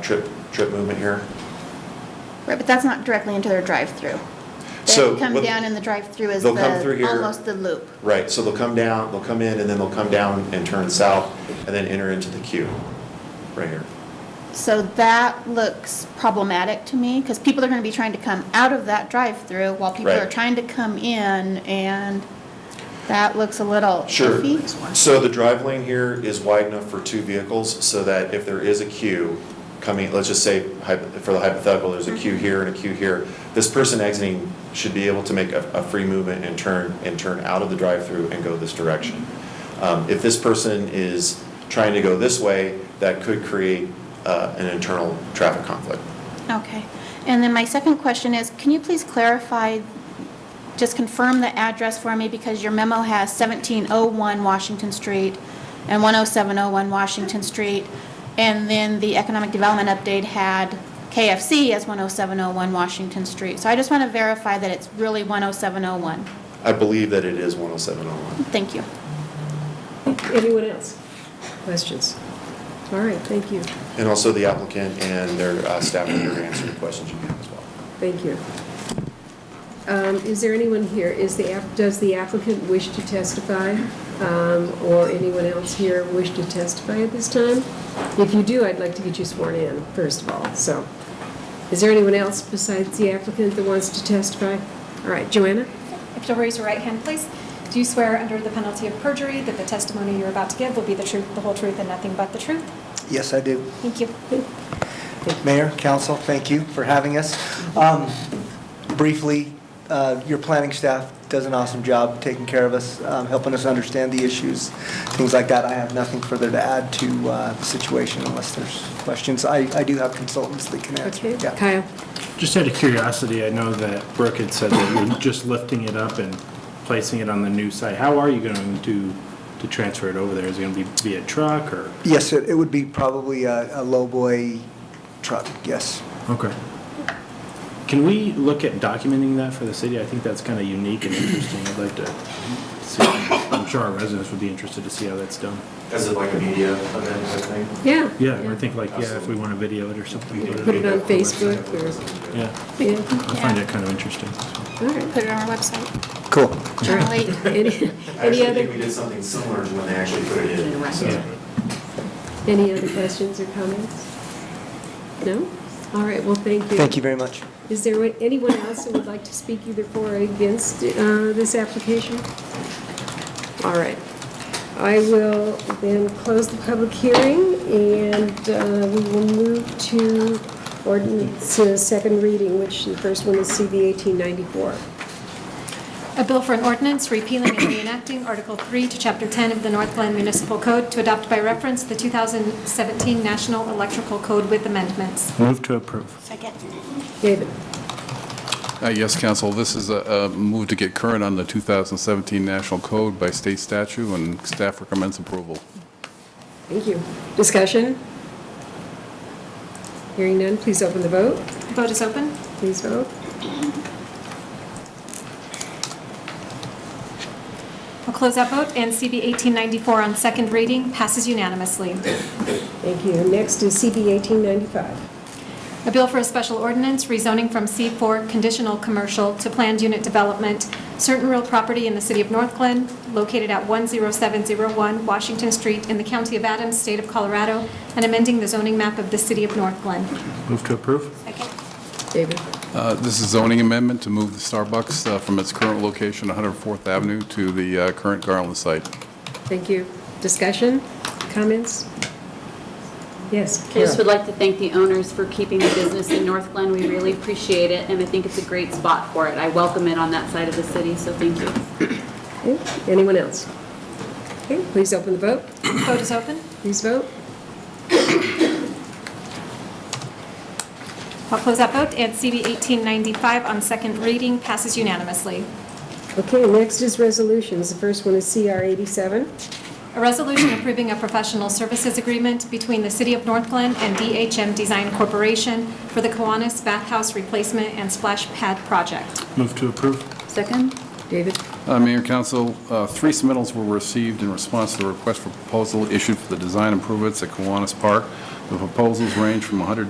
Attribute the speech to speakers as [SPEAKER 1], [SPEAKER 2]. [SPEAKER 1] trip, trip movement here.
[SPEAKER 2] Right, but that's not directly into their drive-through.
[SPEAKER 1] So
[SPEAKER 2] They come
[SPEAKER 1] what-
[SPEAKER 2] down and the drive-through is
[SPEAKER 1] They'll come through
[SPEAKER 2] the,
[SPEAKER 1] here.
[SPEAKER 2] almost the loop.
[SPEAKER 1] Right, so they'll come down, they'll come in, and then they'll come down and turn south, and then enter into the queue, right here.
[SPEAKER 2] So that looks problematic to me, because people are gonna be trying to come out of that drive-through while people
[SPEAKER 1] Right.
[SPEAKER 2] are trying to come in, and that looks a little
[SPEAKER 1] Sure.
[SPEAKER 2] iffy.
[SPEAKER 1] So the drive lane here is wide enough for two vehicles, so that if there is a queue coming, let's just say, hypo- for the hypothetical, there's a queue here and a queue here, this person exiting should be able to make a, a free movement and turn, and turn out of the drive-through and go this direction. Um, If this person is trying to go this way, that could create uh, an internal traffic conflict.
[SPEAKER 2] Okay. And then my second question is, can you please clarify, just confirm the address for me, because your memo has 1701 Washington Street and 10701 Washington Street, and then the economic development update had KFC as 10701 Washington Street. So I just want to verify that it's really 10701.
[SPEAKER 1] I believe that it is 10701.
[SPEAKER 2] Thank you.
[SPEAKER 3] Anyone else? Questions? All right, thank you,
[SPEAKER 1] And also the applicant and their uh, staff are here to answer the questions you have as well.
[SPEAKER 3] thank you. Um, Is there anyone here, is the, app- does the applicant wish to testify? Um, Or anyone else here wish to testify at this time? If you do, I'd like to get you sworn in, first of all, so. Is there anyone else besides the applicant that wants to testify? All right, Joanna?
[SPEAKER 4] If you'll raise your right hand, please. Do you swear under the penalty of perjury that the testimony you're about to give will be the truth, the whole truth, and nothing but the truth?
[SPEAKER 5] Yes, I do.
[SPEAKER 4] Thank you.
[SPEAKER 5] Mayor, council, thank you for having us. Um, Briefly, uh, your planning staff does an awesome job taking care of us, um, helping us understand the issues, things like that. I have nothing further to add to uh, the situation unless there's questions. I I do have consultants that can answer.
[SPEAKER 3] Okay,
[SPEAKER 5] Yeah.
[SPEAKER 3] Kyle?
[SPEAKER 6] Just out of curiosity, I know that Brooke had said that you're just lifting it up and placing it on the new site. How are you going to, to transfer it over there? Is it going to be via truck or?
[SPEAKER 5] Yes, it it would be probably a a lowboy truck, yes.
[SPEAKER 6] Okay. Can we look at documenting that for the city? I think that's kind of unique and interesting. I'd like to see, I'm sure our residents would be interested to see how that's done.
[SPEAKER 1] Is it like a media event type thing?
[SPEAKER 3] Yeah.
[SPEAKER 6] Yeah, I think like, yeah, if we want to video it or something.
[SPEAKER 3] Put it on Facebook or,
[SPEAKER 6] Yeah,
[SPEAKER 3] yeah,
[SPEAKER 6] I find that kind of interesting.
[SPEAKER 3] all right.
[SPEAKER 2] Put it on our website.
[SPEAKER 5] Cool.
[SPEAKER 2] Generally,
[SPEAKER 1] I
[SPEAKER 3] Any any
[SPEAKER 1] actually
[SPEAKER 3] other?
[SPEAKER 1] think we did something similar to when they actually put it in. so-
[SPEAKER 6] Yeah.
[SPEAKER 3] Any other questions or comments? No? All right, well, thank you.
[SPEAKER 5] Thank you very much.
[SPEAKER 3] Is there anyone else who would like to speak either for or against uh, this application? All right. I will then close the public hearing, and uh, we will move to ordinance uh, second reading, which the first one is CV 1894.
[SPEAKER 4] A bill for an ordinance repealing and reenacting Article 3 to Chapter 10 of the Northland Municipal Code to adopt by reference the 2017 National Electrical Code with amendments.
[SPEAKER 6] Move to approve.
[SPEAKER 2] Second.
[SPEAKER 3] David?
[SPEAKER 7] Uh, Yes, council, this is a a move to get current on the 2017 National Code by state statute, and staff recommends approval.
[SPEAKER 3] Thank you. Discussion? Hearing none, please open the vote.
[SPEAKER 4] Vote is open.
[SPEAKER 3] Please vote.
[SPEAKER 4] We'll close that vote, and CB 1894 on second reading passes unanimously.
[SPEAKER 3] Thank you. Next is CB 1895.
[SPEAKER 4] A bill for a special ordinance rezoning from C4 conditional commercial to planned unit development, certain real property in the city of North Glen, located at 10701 Washington Street in the county of Adams, state of Colorado, and amending the zoning map of the city of North Glen.
[SPEAKER 6] Move to approve?
[SPEAKER 3] David?
[SPEAKER 7] Uh, This is zoning amendment to move the Starbucks uh, from its current location, 104th Avenue, to the uh, current Garland site.
[SPEAKER 3] Thank you. Discussion, comments? Yes,
[SPEAKER 8] I just would
[SPEAKER 3] Kara.
[SPEAKER 8] like to thank the owners for keeping the business in North Glen. We really appreciate it, and I think it's a great spot for it. I welcome it on that side of the city, so thank you.
[SPEAKER 3] Okay, Anyone else? Okay, please open the vote.
[SPEAKER 4] Vote is open.
[SPEAKER 3] Please vote.
[SPEAKER 4] I'll close that vote, and CB 1895 on second reading passes unanimously.
[SPEAKER 3] Okay, next is resolutions. The first one is CR 87.
[SPEAKER 4] A resolution approving a professional services agreement between the City of North Glen and DHM Design Corporation for the Kiwanis Bathhouse Replacement and Splash Pad Project.
[SPEAKER 6] Move to approve?
[SPEAKER 2] Second?
[SPEAKER 3] David?
[SPEAKER 7] Uh, Mayor, council, uh, three submittals were received in response to the request for proposal issued for the design improvements at Kiwanis Park. The proposals range from 100